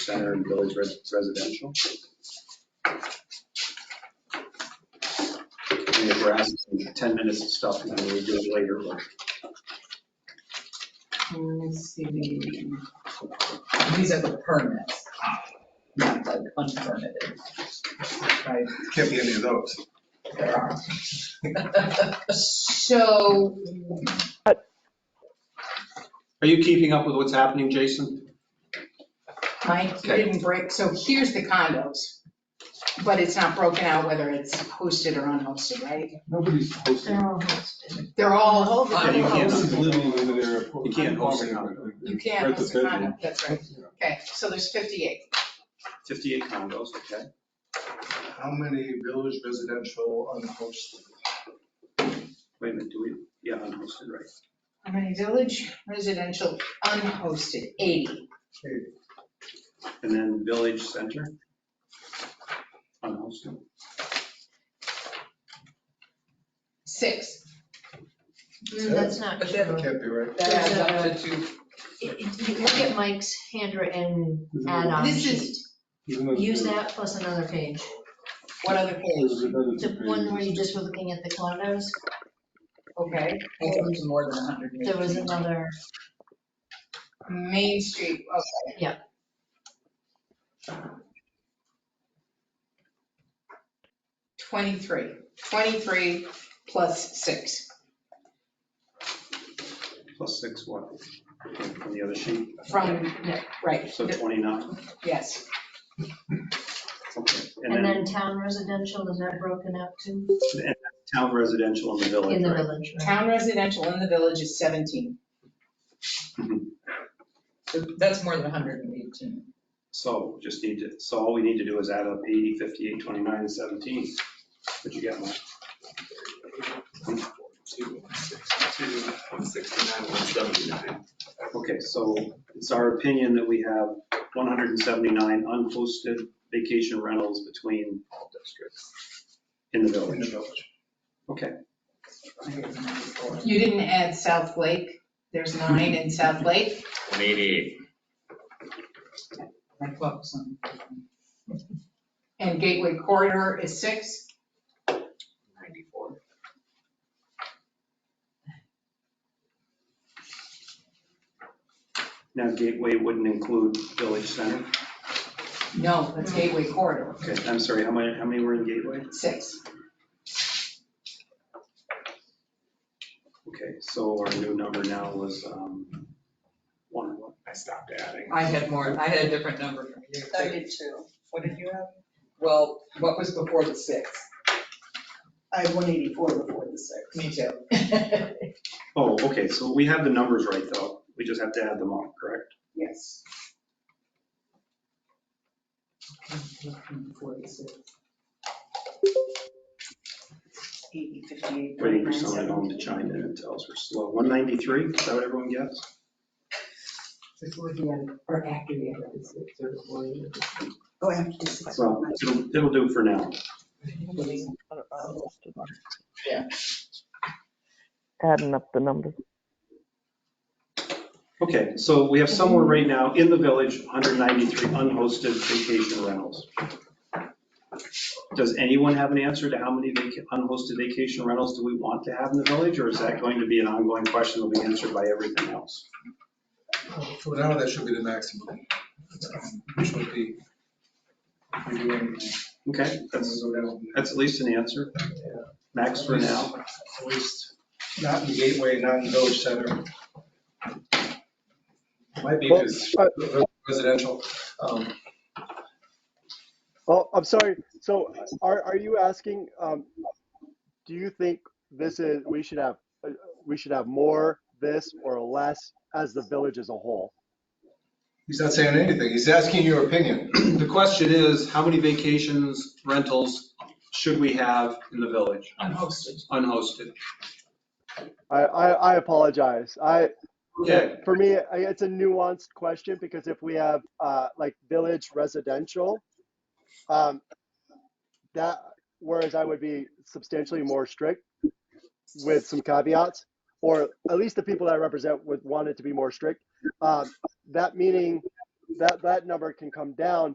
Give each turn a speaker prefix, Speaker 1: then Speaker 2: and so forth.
Speaker 1: center and village res- residential. And if we're asking for 10 minutes of stuff, and then we do it later, like,
Speaker 2: Mm, Let's see. the- These are the permits, not like unpermitted. Right,
Speaker 3: Can't be any of those.
Speaker 2: there are. So,
Speaker 1: are you keeping up with what's happening, Jason?
Speaker 2: Mike
Speaker 1: Okay.
Speaker 2: didn't break, so here's the condos, but it's not broken out whether it's hosted or unhosted, right?
Speaker 3: Nobody's hosting.
Speaker 2: They're all,
Speaker 1: Yeah, you can't.
Speaker 3: Nobody's living in their.
Speaker 1: You can't host it.
Speaker 2: you can't
Speaker 3: Rent a
Speaker 2: host a condo,
Speaker 3: bedroom.
Speaker 2: that's right. Okay, so there's 58.
Speaker 1: 58 condos, okay.
Speaker 3: How many village residential unhosted?
Speaker 1: Wait a minute, do we, yeah, unhosted, right.
Speaker 2: How many village residential unhosted? 80.
Speaker 1: And then village center? Unhosted.
Speaker 2: Six.
Speaker 4: Mm, That's not
Speaker 2: But that-
Speaker 4: true.
Speaker 3: Can't be right.
Speaker 2: That adds up to
Speaker 4: uh,
Speaker 2: two.
Speaker 4: It- it- you Look at Mike's handwritten add-on
Speaker 2: This is-
Speaker 4: sheet. Use that plus another page.
Speaker 2: What other page?
Speaker 4: The one where you just were looking at the condos,
Speaker 2: Okay. It was more than 100.
Speaker 4: there was another,
Speaker 2: Main Street, okay.
Speaker 4: Yeah.
Speaker 2: Twenty-three, twenty-three plus six.
Speaker 1: Plus six what? On the other sheet,
Speaker 2: From, right,
Speaker 1: so 29,
Speaker 2: yes.
Speaker 1: okay.
Speaker 4: and then town residential, is that broken up too?
Speaker 1: town residential in the village,
Speaker 4: In the
Speaker 1: right?
Speaker 4: village, right?
Speaker 2: Town residential in the village is 17.
Speaker 1: Mhm.
Speaker 2: So That's more than 118.
Speaker 1: So just need to, so all we need to do is add up 80, 58, 29, and 17. But you got my, okay, so it's our opinion that we have 179 unhosted vacation rentals between districts in the
Speaker 3: In the
Speaker 1: village.
Speaker 3: village.
Speaker 1: Okay,
Speaker 2: You didn't add South Lake. There's nine in South Lake.
Speaker 5: 188.
Speaker 2: My clocks on. And Gateway Corridor is six. 94.
Speaker 1: now Gateway wouldn't include Village Center.
Speaker 2: No, that's Gateway Corridor,
Speaker 1: Okay, I'm sorry, how many, how many were in Gateway?
Speaker 2: six.
Speaker 1: Okay, so our new number now was um, one, what?
Speaker 5: I stopped adding.
Speaker 6: I had more, I had a different number from you.
Speaker 7: I did too. What did you have?
Speaker 6: Well, what was before the six?
Speaker 7: I had one eighty-four before the six.
Speaker 6: Me too.
Speaker 1: Oh, okay, so we have the numbers right, though. We just have to add them up, correct?
Speaker 7: Yes. Eighty, fifty-eight,
Speaker 1: Waiting for
Speaker 7: thirty-nine,
Speaker 1: someone at home to
Speaker 7: seventy.
Speaker 1: chime in and tell us we're slow. 193, is that what everyone gets?
Speaker 6: Before the end, or after the end of the six, or before the end.
Speaker 7: Oh, I have to do six.
Speaker 1: Well, it'll, it'll do for now.
Speaker 6: Yeah.
Speaker 8: Adding up the numbers.
Speaker 1: Okay, so we have somewhere right now in the village, 193 unhosted vacation rentals. Does anyone have an answer to how many vaca- unhosted vacation rentals do we want to have in the village? Or is that going to be an ongoing question that'll be answered by everything else?
Speaker 3: For now, that should be the maximum, which would be. if you're doing-
Speaker 1: Okay, that's, that's at least an answer. Max for now.
Speaker 3: At least, not in the gateway, not in the village center. Might be because residential, um,
Speaker 9: Oh, I'm sorry. So are, are you asking, um, do you think this is, we should have, uh, we should have more this or less as the village as a whole?
Speaker 3: he's not saying anything, he's asking your opinion.
Speaker 1: The question is, how many vacations rentals should we have in the village,
Speaker 2: Unhosted.
Speaker 1: unhosted?
Speaker 9: I, I, I apologize. I,
Speaker 1: Okay,
Speaker 9: for me, I- it's a nuanced question because if we have, uh, like village residential, um, that, whereas I would be substantially more strict with some caveats, or at least the people that I represent would want it to be more strict. Um, that meaning that, that number can come down